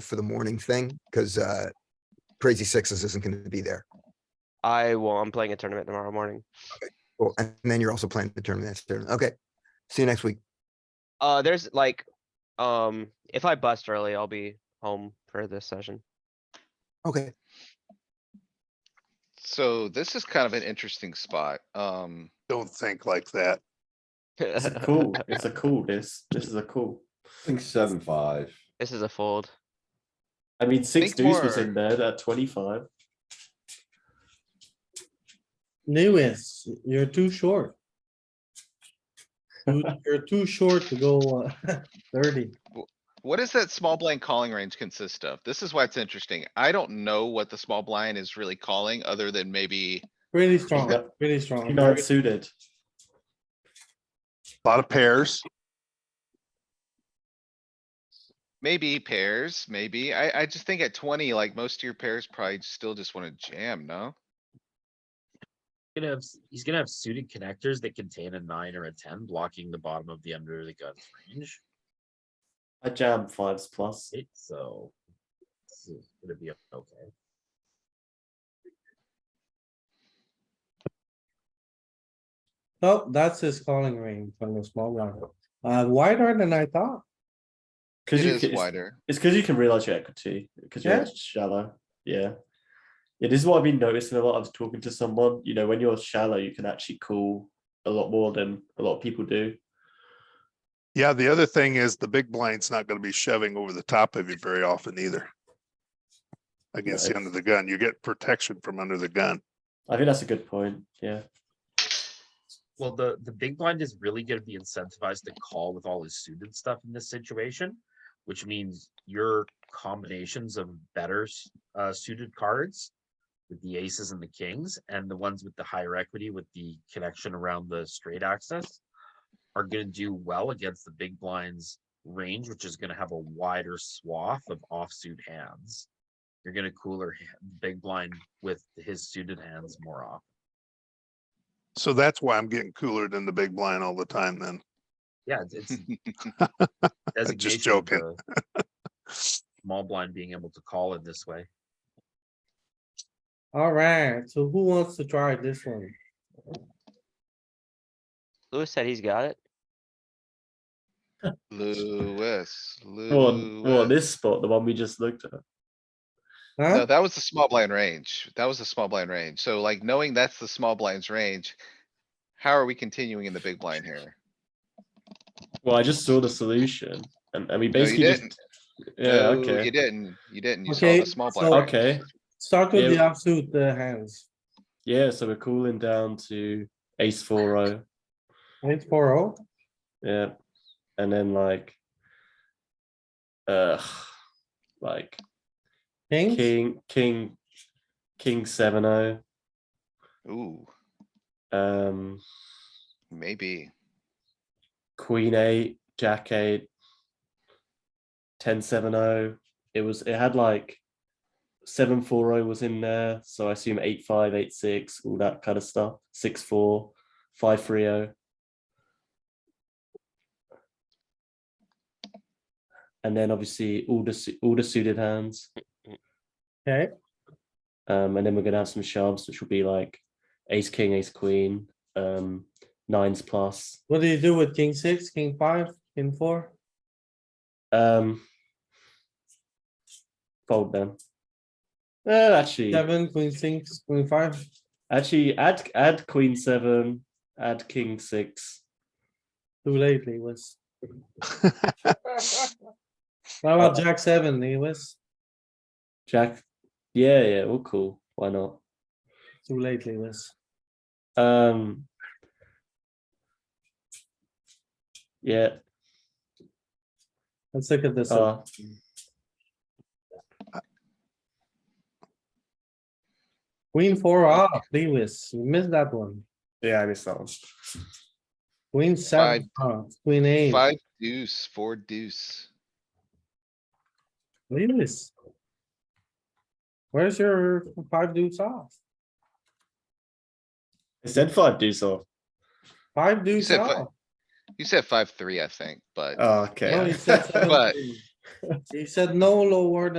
for the morning thing, because uh, crazy sixes isn't gonna be there. I will, I'm playing a tournament tomorrow morning. Well, and then you're also playing the tournament. that's different. Okay. See you next week. Uh, there's like, um, if I bust early, I'll be home for this session. Okay. So this is kind of an interesting spot. Um, Don't think like that. It's a cool. It's a cool. This this is a cool. I think seven, five. This is a fold. I mean, six Think deuce was more. in there at twenty five. Lewis, you're too short. You- You're too short to go uh, thirty. what does that small Mm. blind calling range consist of? This is why it's interesting. I don't know what the small blind is really calling, other than maybe Pretty strong, Yep. pretty You're strong. not suited. Lot of pairs. Maybe pairs, maybe. I, I just think at twenty, like most of your pairs probably still just wanna jam, no? gonna have s- he's gonna have suited connectors that contain a nine or a ten blocking the bottom of the under the gun range. I jam fives plus. It so it's gonna be okay. Oh, that's his calling range from the small blind. Uh, wider than I thought. Because It you. is can- It's wider. it's 'cause you can realize your equity because you're Yeah. shallow. Yeah. Yeah, this is what I've been noticing a lot. I was talking to someone. You know, when you're shallow, you can actually call a lot more than a lot of people do. Yeah, the other thing is the big blind's not gonna be shoving over the top of you very often either. Against the Right. end of the gun, you get protection from under the gun. I think that's a good point. Yeah. Well, the the big blind is really gonna be incentivized to call with all his suited stuff in this situation, which means your combinations of better s- uh, suited cards with the aces and the kings and the ones with the higher equity with the connection around the straight axis are gonna do well against the big blinds range, which is gonna have a wider swath of offsuit hands. You're gonna cooler big blind with his suited hands more often. So that's why I'm getting cooler than the big blind all the time then. Yeah, it's- it's designation Just of joking. the Small blind being able to call it this way. Alright, so who wants to try this one? Lewis said he's got it. Lewis, Or or Lewis. this spot, the one we just looked at. No, Huh? that was the small blind range. That was the small blind range. So like knowing that's the small blind's range, how are we continuing in the big blind here? Well, I just saw the solution, and, and we you basically just. didn't. Yeah. No, okay. You didn't, you didn't. You saw Okay, the small blind. so- range. Okay. Start with the Yeah. offsuit uh, hands. Yeah, so we're cooling down to ace four o. Eight four oh. Yeah, and then like, uh, like King, king, king, king seven o. Ooh, Um, maybe. queen eight, jack eight, ten seven o. It was. It had like seven four o was in there, so I assume eight five, eight six, all that kind of stuff. Six four, five three oh. o. And then obviously all the su- all the suited hands. okay, Um, and then we're gonna have some shoves, which will be like ace king, ace queen, um, nines plus. what do you do with king six, king five, king four? Um, fold them. Uh, actually, Seven, queen six, queen five, actually, add add queen seven, add king six. too late, Lewis. How about jack seven, Lewis? Jack, yeah, yeah, all cool. Why not? Too late, Lewis. Um, yeah. Let's look at this. Uh, one. Queen four off, Lewis, you missed that one. yeah, I missed that one. Queen seven, off, queen eight, Five deuce, four deuce. Lewis. Where's your five deuce off? It said five deuce off. Five deuce said fi- off. You said five, three, I think, but Oh, No, okay. he said seven, But- three. He said no lower than